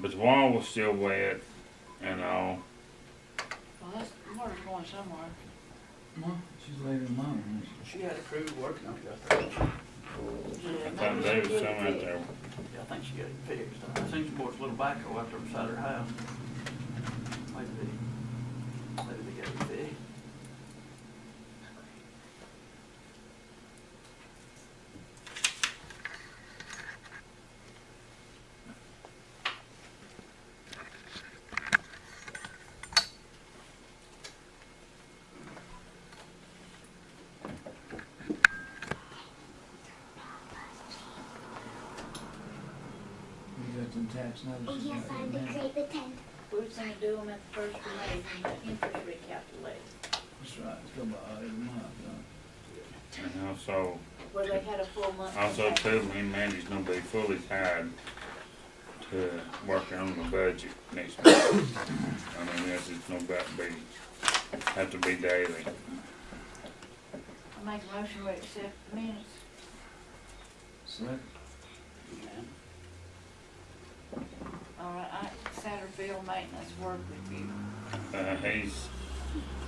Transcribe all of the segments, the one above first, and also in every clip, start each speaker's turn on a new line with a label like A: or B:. A: but the wall was still wet and all.
B: Well, that's, water's going somewhere.
C: No, she's leaving alone.
D: She had a crew working on it up there.
B: Yeah,
A: I
B: maybe
A: thought there was
B: she
A: some
B: did
A: out
B: it.
A: there.
D: Yeah, I think she got it fixed. I seen some more little backhoe out there beside her house. Maybe, they- maybe they got it fixed.
C: We got some tax
E: Oh,
C: notices.
E: yes, I
C: right now.
E: decree the tenth.
B: We was gonna do them at the first of May, when the interest rate calculated.
C: That's right, it's go by every month, huh?
A: And also,
B: Well, they had a full month.
A: also
B: contract.
A: too, me and Mandy's gonna be fully tied to working on the budget next month. I mean, that's just no about to be, have to be daily.
B: I make a motion to accept the minutes.
C: Select,
B: All right, I, Satterfield maintenance work review.
A: Uh, he's,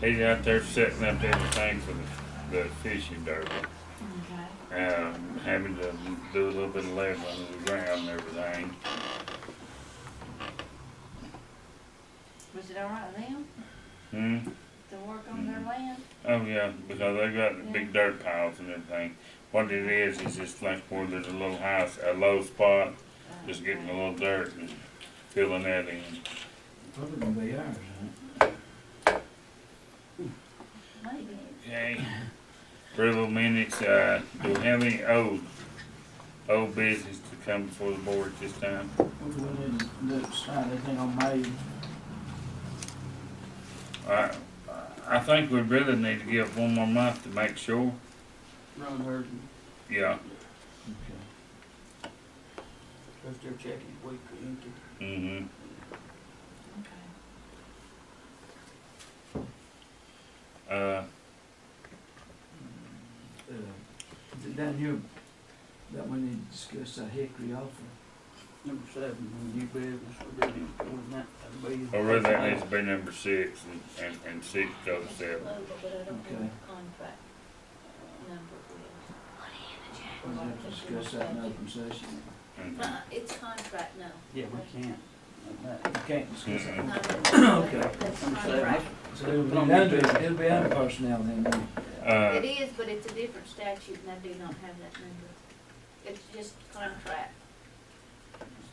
A: he's out there setting up everything for the, the fishing derby.
B: Okay.
A: Um, having to do a little bit of leveling of the ground and everything.
B: Was it all right then,
A: Hmm?
B: to work on their land?
A: Oh yeah, because they got the big dirt piles and everything. What it is is just like where there's a little house, a low spot, just getting a little dirt and filling that in.
C: probably gonna be ours, huh?
B: Maybe.
A: Okay. Approval minutes. Uh, do we have any old old business to come before the board at this time?
C: What do we need to do, sign anything on May?
A: I I think we really need to give one more month to make sure.
D: Run her,
A: Yeah.
C: Okay.
D: because they're checking week or anything.
A: Mm-hmm.
B: Okay.
A: Uh,
C: Uh, is it down here, that we need to discuss that hickory offer.
D: Number seven, new business, we're really doing that. that'd be-
A: I Oh, really think it needs to be number six and, and, and six goes seven.
B: Local, but I don't have
C: Okay.
B: a contract uh, number with
C: We have to discuss that in open session.
B: it.
A: Mhm.
B: Uh, it's contract now.
D: Yeah, we can't. Not that.
C: You can't discuss
A: Mm-mm.
C: that.
B: Not a-
C: Okay.
B: It's
D: Number seven,
B: contract.
C: So it'll be under, it'll be under personnel then, won't it?
A: Uh,
B: It is, but it's a different statute and I do not have that number. It's just contract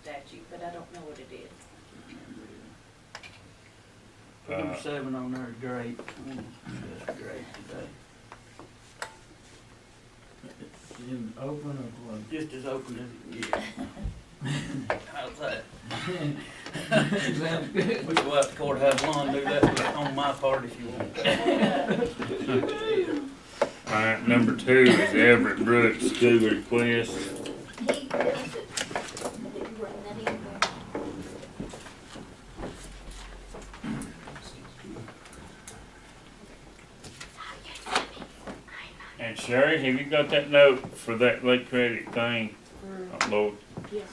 B: statute, but I don't know what it is.
D: Put number
A: Uh,
D: seven on there, great. That's great today.
C: In open or closed?
D: Just as open as it gets. How's that?
C: Sounds good.
D: We go out to courthouse lawn, do that on my part if you want.
A: all right, number two is Everett Brooks school request.
B: He does it. Did you bring that in there?
A: And Sherry, have you got that note for that late credit thing? Oh, Lord,
B: Yes.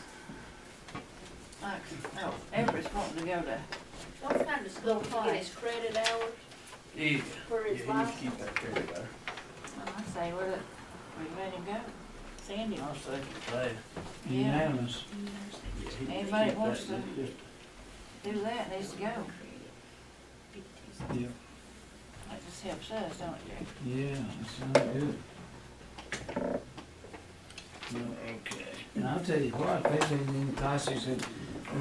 B: Like, oh, Everett's wanting to go to. Don't find his little Get his credit hours
D: Yeah.
B: for
D: Yeah,
B: his
D: he must
B: life.
D: keep that there, though.
B: I say, well, we let him go. Sandy
D: I'll
B: wants.
D: second that.
B: Yeah.
C: Unanimous.
D: Yeah, he- he
B: Anybody
D: keep
B: wants
D: that.
B: to-
D: Just-
B: Do that, needs to go.
C: Yeah.
B: That just helps us, don't it, Jack?
C: Yeah, that sounds good. Well,
A: okay.
C: And I'll tell you what, if they didn't even cost us, if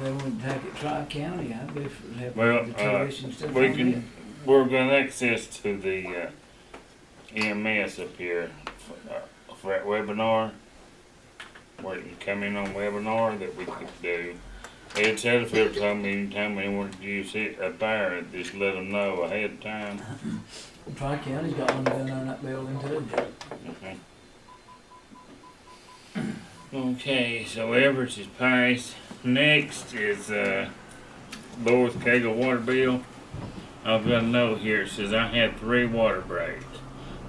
C: they wouldn't take it tri-county, I'd be for
A: Well,
C: having the
A: uh,
C: tuition stuff on
A: We
C: it.
A: can, we're gonna access to the uh, EMS up here for, uh, for that webinar. Where you can come in on webinar that we could do. Ed Satterfield told me anytime they want to use it up there, just let them know ahead of time.
C: Tri-county's got one down on that building too.
A: Okay. Okay, so Everett's is passed. Next is, uh, Lois Cagle water bill. I've got a note here, it says I had three water breaks.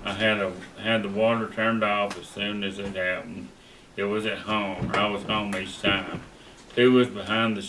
A: I had a, had the water turned off as soon as it happened. It was at home, I was home each time. Two was behind the